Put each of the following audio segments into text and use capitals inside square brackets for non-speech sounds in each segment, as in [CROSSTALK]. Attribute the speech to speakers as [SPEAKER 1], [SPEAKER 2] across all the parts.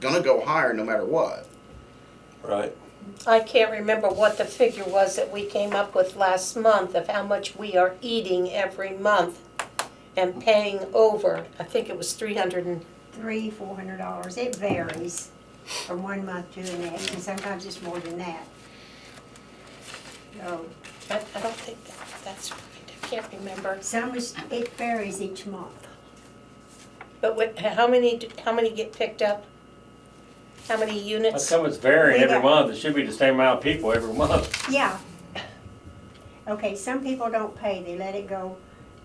[SPEAKER 1] gonna go higher no matter what.
[SPEAKER 2] Right.
[SPEAKER 3] I can't remember what the figure was that we came up with last month of how much we are eating every month and paying over. I think it was three hundred and,
[SPEAKER 4] three, four hundred dollars. It varies from one month to the next, and sometimes it's more than that. So
[SPEAKER 3] I, I don't think that, that's right, I can't remember.
[SPEAKER 4] some is, it varies each month.
[SPEAKER 3] But what, how many, do- how many get picked up? How many
[SPEAKER 5] That's
[SPEAKER 3] units?
[SPEAKER 5] how it's varying
[SPEAKER 4] We
[SPEAKER 5] every
[SPEAKER 4] got-
[SPEAKER 5] month. It should be the same amount of people every month.
[SPEAKER 4] Yeah. Okay, some people don't pay. They let it go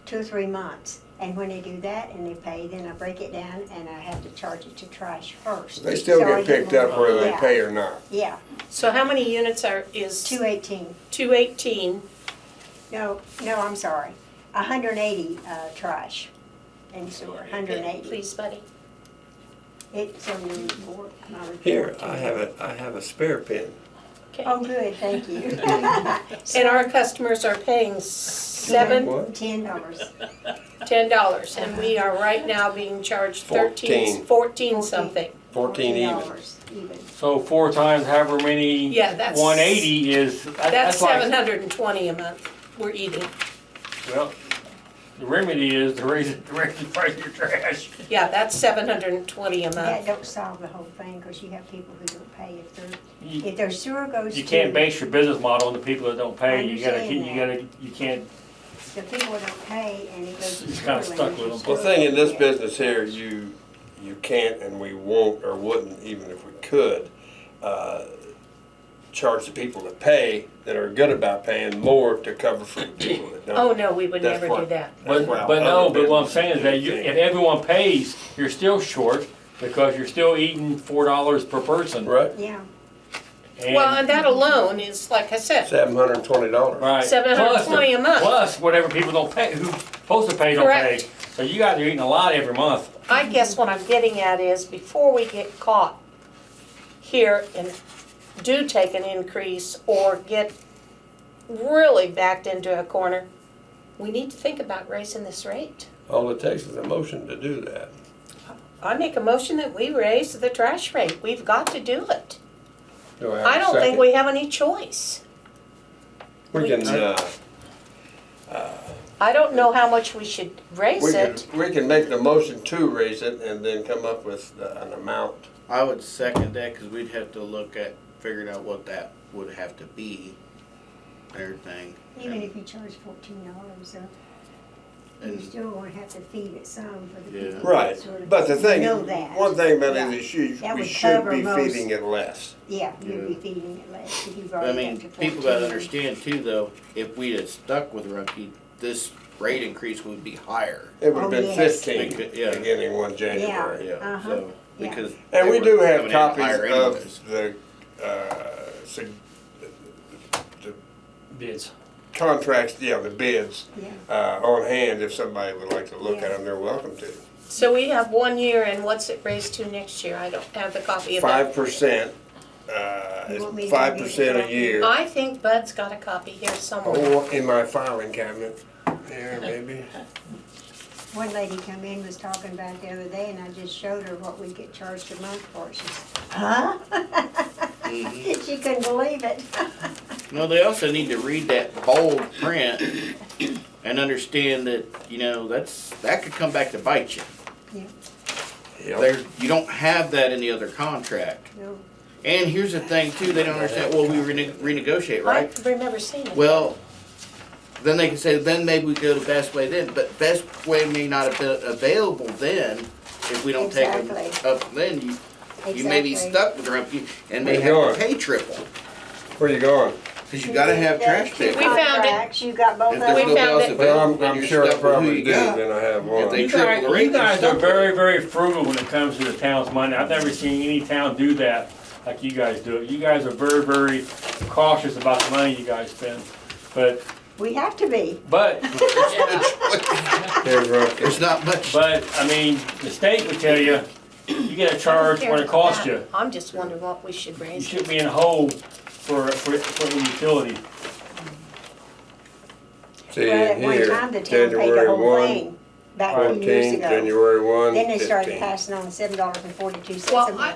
[SPEAKER 4] two or three months. And when they do that and they pay, then I break it down and I have to charge it to trash first.
[SPEAKER 2] They still
[SPEAKER 4] So I
[SPEAKER 2] get picked
[SPEAKER 4] more.
[SPEAKER 2] up whether they
[SPEAKER 4] Yeah,
[SPEAKER 2] pay or not.
[SPEAKER 4] Yeah,
[SPEAKER 3] So how many units are, is
[SPEAKER 4] two eighteen.
[SPEAKER 3] two eighteen?
[SPEAKER 4] No, no, I'm sorry. hundred and eighty, uh, trash and sewer, hundred and eighty.
[SPEAKER 3] Please, buddy.
[SPEAKER 4] It's on the report, my report.
[SPEAKER 2] Here,
[SPEAKER 4] too.
[SPEAKER 2] I have a, I have a spare pen.
[SPEAKER 3] Okay.
[SPEAKER 4] Oh, good,
[SPEAKER 2] [LAUGHS]
[SPEAKER 4] thank you. [LAUGHS]
[SPEAKER 3] And our customers are paying seven,
[SPEAKER 2] What?
[SPEAKER 4] Ten dollars,
[SPEAKER 3] ten dollars, and we are right now being charged thirteen,
[SPEAKER 2] Fourteen.
[SPEAKER 3] fourteen something.
[SPEAKER 2] Fourteen
[SPEAKER 4] fourteen
[SPEAKER 2] even.
[SPEAKER 4] dollars even.
[SPEAKER 5] So four times however many.
[SPEAKER 3] Yeah, that's-
[SPEAKER 5] One eighty is. that-
[SPEAKER 3] That's
[SPEAKER 5] like-
[SPEAKER 3] seven hundred and twenty a month we're eating,
[SPEAKER 5] Well, the remedy is to raise it, to raise the price of your trash.
[SPEAKER 3] yeah, that's seven hundred and twenty a
[SPEAKER 4] That
[SPEAKER 3] month.
[SPEAKER 4] don't solve the whole thing, because you have people who don't pay if their,
[SPEAKER 5] You,
[SPEAKER 4] if their sewer goes to.
[SPEAKER 5] you can't base your business model on the people that don't pay. You gotta,
[SPEAKER 4] understand
[SPEAKER 5] keep- you gotta, you can't.
[SPEAKER 4] The people who don't pay and it goes to.
[SPEAKER 5] It's kinda
[SPEAKER 4] sewer
[SPEAKER 5] stuck with
[SPEAKER 4] managers.
[SPEAKER 5] them.
[SPEAKER 2] The thing in this
[SPEAKER 4] Yeah.
[SPEAKER 2] business here, you, you can't and we won't or wouldn't, even if we could, uh, charge the people that pay, that are good about paying more to cover for the people that don't.
[SPEAKER 3] Oh, no, we would
[SPEAKER 2] That's
[SPEAKER 3] never do
[SPEAKER 2] what-
[SPEAKER 3] that.
[SPEAKER 5] But,
[SPEAKER 2] That's what
[SPEAKER 5] but no,
[SPEAKER 2] other
[SPEAKER 5] but what I'm
[SPEAKER 2] businesses
[SPEAKER 5] saying is that you,
[SPEAKER 2] do.
[SPEAKER 5] if everyone pays, you're still short because you're still eating four dollars per person.
[SPEAKER 2] Right,
[SPEAKER 4] Yeah,
[SPEAKER 3] Well, and that alone is, like I said,
[SPEAKER 2] seven hundred and twenty dollars.
[SPEAKER 5] Right.
[SPEAKER 3] Seven hundred
[SPEAKER 5] Plus the-
[SPEAKER 3] twenty a month.
[SPEAKER 5] Plus whatever people don't pay, who's supposed to pay don't pay.
[SPEAKER 3] Correct.
[SPEAKER 5] So you guys are eating a lot every month.
[SPEAKER 3] I guess what I'm getting at is before we get caught here and do take an increase or get really backed into a corner, we need to think about raising this rate.
[SPEAKER 2] All it takes is a motion to do that.
[SPEAKER 3] I make a motion that we raise the trash rate. We've got to do it.
[SPEAKER 2] Do have a
[SPEAKER 3] I don't think
[SPEAKER 2] second?
[SPEAKER 3] we have any choice.
[SPEAKER 2] We can, uh,
[SPEAKER 3] I don't know how much we should
[SPEAKER 2] we
[SPEAKER 3] raise
[SPEAKER 2] can,
[SPEAKER 3] it.
[SPEAKER 2] we can make the motion to raise it and then come up with uh, an amount.
[SPEAKER 1] I would second that because we'd have to look at figuring out what that would have to be, and everything.
[SPEAKER 4] even if you charge fourteen dollars, you're
[SPEAKER 1] And
[SPEAKER 4] still gonna have to feed it some for the
[SPEAKER 1] Yeah.
[SPEAKER 4] people. that
[SPEAKER 2] Right,
[SPEAKER 4] sort of
[SPEAKER 2] but the thing,
[SPEAKER 4] Know that.
[SPEAKER 2] one thing about it
[SPEAKER 4] Yeah.
[SPEAKER 2] is you,
[SPEAKER 4] That
[SPEAKER 2] we
[SPEAKER 4] would
[SPEAKER 2] should
[SPEAKER 4] cover
[SPEAKER 2] be
[SPEAKER 4] most.
[SPEAKER 2] feeding it less.
[SPEAKER 4] Yeah, you'd be
[SPEAKER 1] Yeah.
[SPEAKER 4] feeding it less if you've
[SPEAKER 1] I
[SPEAKER 4] already
[SPEAKER 1] mean,
[SPEAKER 4] got to fourteen.
[SPEAKER 1] people gotta understand too, though. If we had stuck with Rumpke, this rate increase would be higher.
[SPEAKER 2] It would
[SPEAKER 4] Oh,
[SPEAKER 2] have been
[SPEAKER 4] yes.
[SPEAKER 2] fifteen
[SPEAKER 1] Because- yeah.
[SPEAKER 2] beginning one January.
[SPEAKER 1] Yeah.
[SPEAKER 4] Uh-huh,
[SPEAKER 1] So
[SPEAKER 4] yeah.
[SPEAKER 1] because
[SPEAKER 2] And
[SPEAKER 1] they
[SPEAKER 2] we
[SPEAKER 1] were
[SPEAKER 2] do
[SPEAKER 1] coming
[SPEAKER 2] have
[SPEAKER 1] in
[SPEAKER 2] copies
[SPEAKER 1] higher anyways.
[SPEAKER 2] of the, uh, sig- the
[SPEAKER 5] Bids.
[SPEAKER 2] contracts, yeah, the bids,
[SPEAKER 4] Yeah.
[SPEAKER 2] uh, on hand if somebody would like to look at
[SPEAKER 4] Yeah.
[SPEAKER 2] them, they're welcome to.
[SPEAKER 3] So we have one year and what's it raised to next year? I don't have the copy of that.
[SPEAKER 2] Five percent, uh,
[SPEAKER 4] You want
[SPEAKER 2] it's
[SPEAKER 4] me to give you
[SPEAKER 2] five percent
[SPEAKER 4] the-
[SPEAKER 2] a year.
[SPEAKER 3] I think Bud's got a copy here somewhere.
[SPEAKER 2] Or in my filing cabinet, there
[SPEAKER 1] [LAUGHS]
[SPEAKER 2] maybe.
[SPEAKER 4] One lady come in, was talking about it the other day, and I just showed her what we get charged a month for. She's, huh? [LAUGHS] She couldn't believe it. [LAUGHS]
[SPEAKER 1] No, they also need to read that bold print and understand that you know that's that could come back to bite you.
[SPEAKER 2] Yep.
[SPEAKER 1] There's you don't have that in the other contract.
[SPEAKER 4] No,
[SPEAKER 1] And here's the thing too, they don't understand. Well, we rene- renegotiate,
[SPEAKER 3] I
[SPEAKER 1] right?
[SPEAKER 3] remember seeing it.
[SPEAKER 1] Well, then they can say, then maybe we go to best way then, but best way may not have been available then if we don't take them
[SPEAKER 4] Exactly.
[SPEAKER 1] up then. You, you may be
[SPEAKER 4] exactly.
[SPEAKER 1] stuck with Rumpke and may
[SPEAKER 2] Where you
[SPEAKER 1] have
[SPEAKER 2] going?
[SPEAKER 1] to pay triple,
[SPEAKER 2] Where you going?
[SPEAKER 1] cause you gotta have trash
[SPEAKER 4] Two
[SPEAKER 1] pickup.
[SPEAKER 3] We found it.
[SPEAKER 4] contracts, You got both
[SPEAKER 1] If
[SPEAKER 4] of
[SPEAKER 1] there's
[SPEAKER 3] We
[SPEAKER 1] nobody
[SPEAKER 4] them.
[SPEAKER 3] found
[SPEAKER 1] else
[SPEAKER 3] it.
[SPEAKER 1] available,
[SPEAKER 2] Well, I'm,
[SPEAKER 1] then
[SPEAKER 2] I'm
[SPEAKER 1] you're
[SPEAKER 2] sure I
[SPEAKER 1] stuck with who
[SPEAKER 2] probably
[SPEAKER 1] you
[SPEAKER 2] do,
[SPEAKER 1] got.
[SPEAKER 2] then I have one.
[SPEAKER 1] they-
[SPEAKER 5] You guys,
[SPEAKER 1] Triple rate
[SPEAKER 5] you guys
[SPEAKER 1] is
[SPEAKER 5] are
[SPEAKER 1] up.
[SPEAKER 5] very, very frugal when it comes to the town's money. I've never seen any town do that like you guys do it. You guys are very, very cautious about the money you guys spend. But,
[SPEAKER 4] We have to be.
[SPEAKER 3] [LAUGHS]
[SPEAKER 5] but,
[SPEAKER 2] Here's
[SPEAKER 1] [LAUGHS]
[SPEAKER 2] Rumpke.
[SPEAKER 1] There's not much.
[SPEAKER 5] but, I mean, the state would tell you, you get a charge what it costs you.
[SPEAKER 3] I'm just wondering what we should
[SPEAKER 5] You
[SPEAKER 3] raise.
[SPEAKER 5] should be in hole for, for, for the utility.
[SPEAKER 2] See,
[SPEAKER 4] Well, at one
[SPEAKER 2] here,
[SPEAKER 4] time, the town paid the
[SPEAKER 2] January
[SPEAKER 4] whole
[SPEAKER 2] one,
[SPEAKER 4] thing, back a few years
[SPEAKER 2] fourteen,
[SPEAKER 4] ago.
[SPEAKER 2] January one,
[SPEAKER 4] Then they started
[SPEAKER 2] fifteen.
[SPEAKER 4] passing on seven dollars and forty-two cents a
[SPEAKER 3] Well, I,
[SPEAKER 4] month.